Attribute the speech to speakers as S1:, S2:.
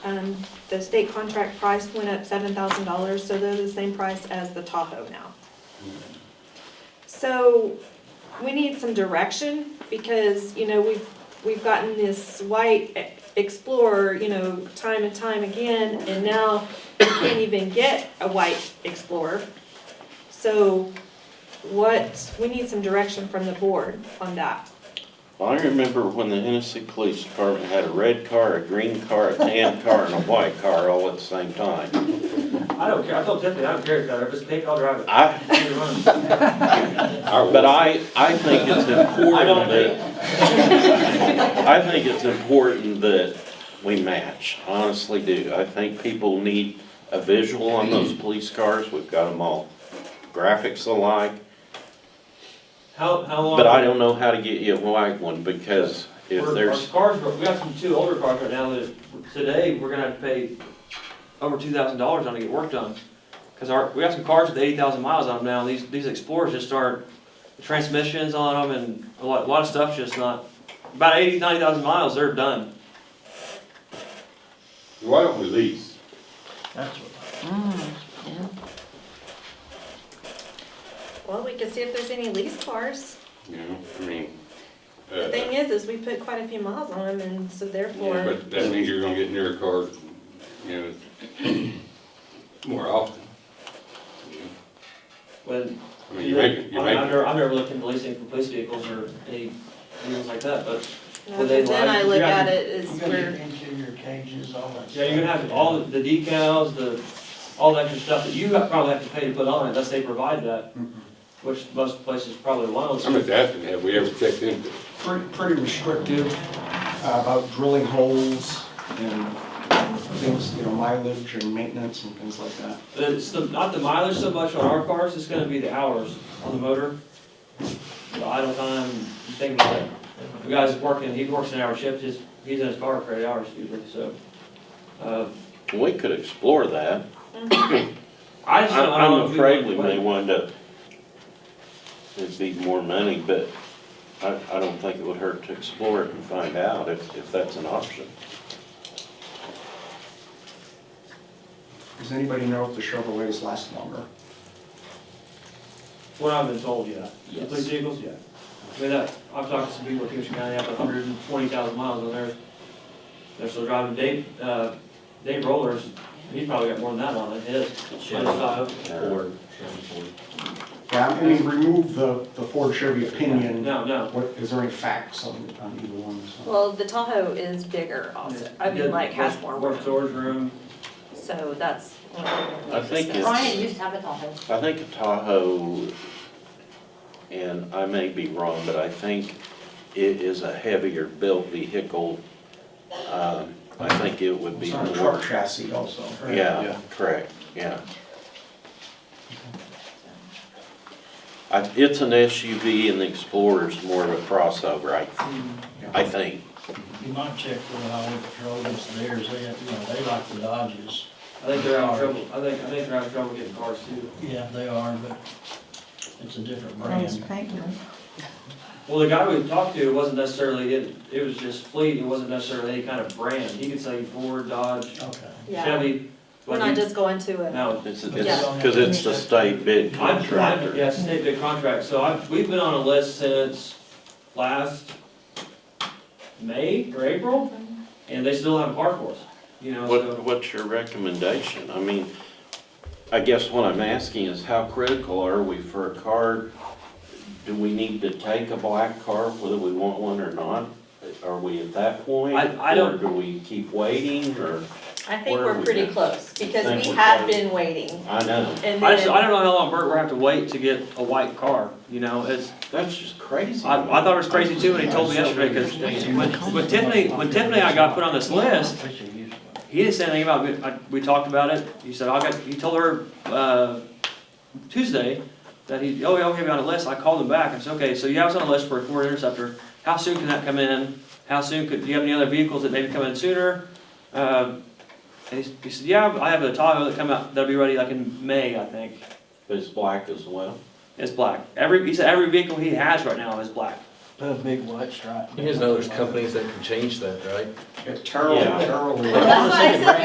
S1: Um, the state contract price went up seven thousand dollars, so they're the same price as the Tahoe now. So, we need some direction, because, you know, we've, we've gotten this white Explorer, you know, time and time again, and now we can't even get a white Explorer. So, what, we need some direction from the board on that.
S2: I remember when the Hennessy Police Department had a red car, a green car, a tan car, and a white car all at the same time.
S3: I don't care, I told Tiffany, I don't care, if it's pink, I'll drive it.
S2: I,
S3: Either one.
S2: but I, I think it's important that, I think it's important that we match, I honestly do. I think people need a visual on those police cars, we've got them all graphics alike.
S3: How, how long?
S2: But I don't know how to get you a white one, because if
S3: Our-
S2: there's,
S3: Our cars, we got some two older cars right now that, today, we're gonna have to pay over two thousand dollars on to get work done. Cause our, we got some cars with eighty thousand miles on them now, these, these Explorers just aren't, the transmissions on them and a lot, a lot of stuff's just not, about eighty, ninety thousand miles, they're done.
S4: Why don't we lease?
S5: That's what,
S1: Well, we could see if there's any lease cars.
S2: you know, I mean,
S4: Uh,
S1: Thing is, is we put quite a few miles on them, and so therefore,
S4: But that means you're gonna get newer cars, you know, more often. you know?
S3: When,
S4: I mean,
S3: I'm,
S4: you make, you
S3: I'm
S4: make,
S3: never, I'm never looking at leasing for police vehicles or any vehicles like that, but
S1: you know,
S3: Well, they
S1: uh, then
S3: lie.
S1: I look
S3: Yeah.
S1: at it
S5: you
S1: as
S5: gotta
S1: we're,
S5: get interior cages, all that stuff.
S3: Yeah, you're gonna have all the decals, the, all that extra stuff that you probably have to pay to put on it, unless they provide that,
S6: Mm-hmm.
S5: Mhm.
S3: which most places probably won't.
S4: I'm just asking, have we ever checked into it?
S6: pretty, pretty restrictive uh, about drilling holes and things, you know, mileage and maintenance and things like that.
S3: It's the, not the mileage so much on our cars, it's gonna be the hours on the motor. The idle time, you think about it. The guy's working, he works an hour shift, his he's in his car for eight hours usually, so. uh,
S2: we could explore that.
S3: I just don't, I
S2: I'm
S3: don't know.
S2: I'm
S3: if
S2: afraid we
S3: want to-
S2: may wind up, it'd be more money, but I, I don't think it would hurt to explore it and find out if, if that's an option.
S6: Does anybody know if the Chevrolets last longer?
S3: What I've been told, yeah. The
S6: Yes.
S3: police vehicles, yeah. I mean, that, I've talked to some people in Kingston County, have hundred and twenty thousand miles on theirs. They're still driving Dave, uh, Dave Rollers, he's probably got more than that on it, his.
S7: Chevy.
S3: Honda
S7: Ford, Chevy Ford.
S6: Yeah, I mean, remove the, the Ford Chevy
S3: style.
S6: opinion.
S3: No, no.
S6: What, is there any facts on, on either one? so?
S1: well, the Tahoe is bigger also, I mean, like, has more
S3: More
S1: room,
S3: storage room.
S1: so that's. one of the
S2: I think
S1: reasons.
S2: it's-
S8: Brian used to have a Tahoe.
S2: I think a Tahoe, and I may be wrong, but I think it is a heavier built vehicle. Um, I think it would be
S6: It's on a
S2: more,
S6: truck chassis also. right?
S2: yeah, correct, yeah. I, it's an SUV and the Explorer's more of a crossover, I, I think.
S5: You might check with highway patrol, if theirs, they, have- you know, they like the Dodges.
S3: I think they're out of trouble, I think, I think they're out of trouble getting cars too.
S5: Yeah, they are, but it's a different
S9: Yes,
S5: brand.
S9: thank you.
S3: Well, the guy we talked to wasn't necessarily, it, it was just fleet, it wasn't necessarily any kind of brand. He could sell you Ford, Dodge,
S5: Okay.
S1: Yeah,
S3: Chevy. but
S1: we're not
S3: he-
S1: just going to it.
S3: No,
S2: It's,
S1: Yeah.
S2: it's, cause it's the state bid
S3: I'm trying,
S2: contractor.
S3: yeah, it's a state bid contract, so I've, we've been on a list since last May or April, and they still haven't car for us, you know,
S2: What,
S3: so.
S2: what's your recommendation? I mean, I guess what I'm asking is how critical are we for a car? Do we need to take a black car whether we want one or not? Are we at that point?
S3: I- I don't-
S2: Or do we keep waiting or,
S1: I think
S2: Where are
S1: we're
S2: we
S1: pretty
S2: at?
S1: close,
S2: Think
S1: because we
S2: we're
S1: had
S2: close.
S1: been waiting,
S2: I know,
S1: and
S3: I just, I
S1: then,
S3: don't know how long Bert will have to wait to get a white car, you know, it's,
S2: that's just crazy.
S3: I, I thought it was crazy too, when he told me yesterday, because when, when Tiffany, when Tiffany and I got put on this list,
S5: We should use one.
S3: He didn't say anything about, it. I- we talked about it, he said, I got, he told her, uh, Tuesday, that he, oh, yeah, okay, about a list, I called him back, I said, okay, so you have us on a list for a Ford Interceptor, how soon can that come in? How soon could, do you have any other vehicles that maybe come in sooner? Um, and he, he said, yeah, I have a Tahoe that come out, that'll be ready like in May, I think,
S2: But it's black as well.
S3: it's black. Every, he said, every vehicle he has right now is black,
S5: Put a big white stripe.
S7: You guys know there's companies that can change that, right?
S6: It Terrible,
S2: Yeah.
S6: terrible.
S1: That's why I said